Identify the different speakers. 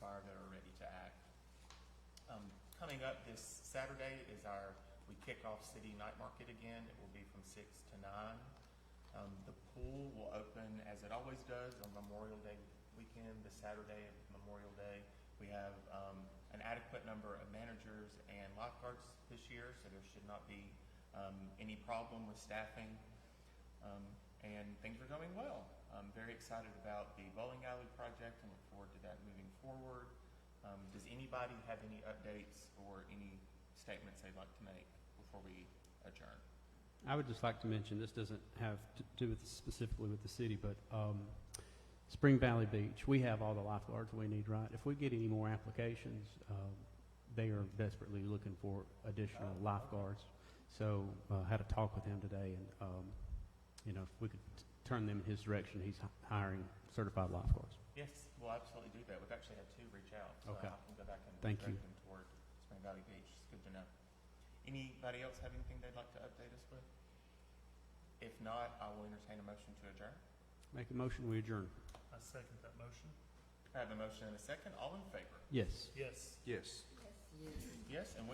Speaker 1: Um, coming up this Saturday is our, we kick off City Night Market again. It will be from six to nine. Um, the pool will open as it always does on Memorial Day weekend, the Saturday of Memorial Day. We have, um, an adequate number of managers and lifeguards this year, so there should not be, um, any problem with staffing. Um, and things are going well. I'm very excited about the bowling alley project and look forward to that moving forward. Um, does anybody have any updates or any statements they'd like to make before we adjourn?
Speaker 2: I would just like to mention, this doesn't have to do with specifically with the city, but um, Spring Valley Beach, we have all the lifeguards we need, right? If we get any more applications, um, they are desperately looking for additional lifeguards. So uh, had a talk with him today, and, um, you know, if we could t- turn them in his direction, he's hi- hiring certified lifeguards.
Speaker 1: Yes, we'll absolutely do that. We've actually had two reach out, so
Speaker 2: Okay.
Speaker 1: I can go back and
Speaker 2: Thank
Speaker 1: direct
Speaker 2: you.
Speaker 1: them toward Spring Valley Beach. It's good to know. Anybody else have anything they'd like to update us with? If not, I will entertain a motion to adjourn.
Speaker 2: Make a motion, we adjourn.
Speaker 3: I second that motion.
Speaker 1: I have a motion and a second. All in favor?
Speaker 2: Yes.
Speaker 3: Yes.
Speaker 4: Yes.
Speaker 1: Yes, and we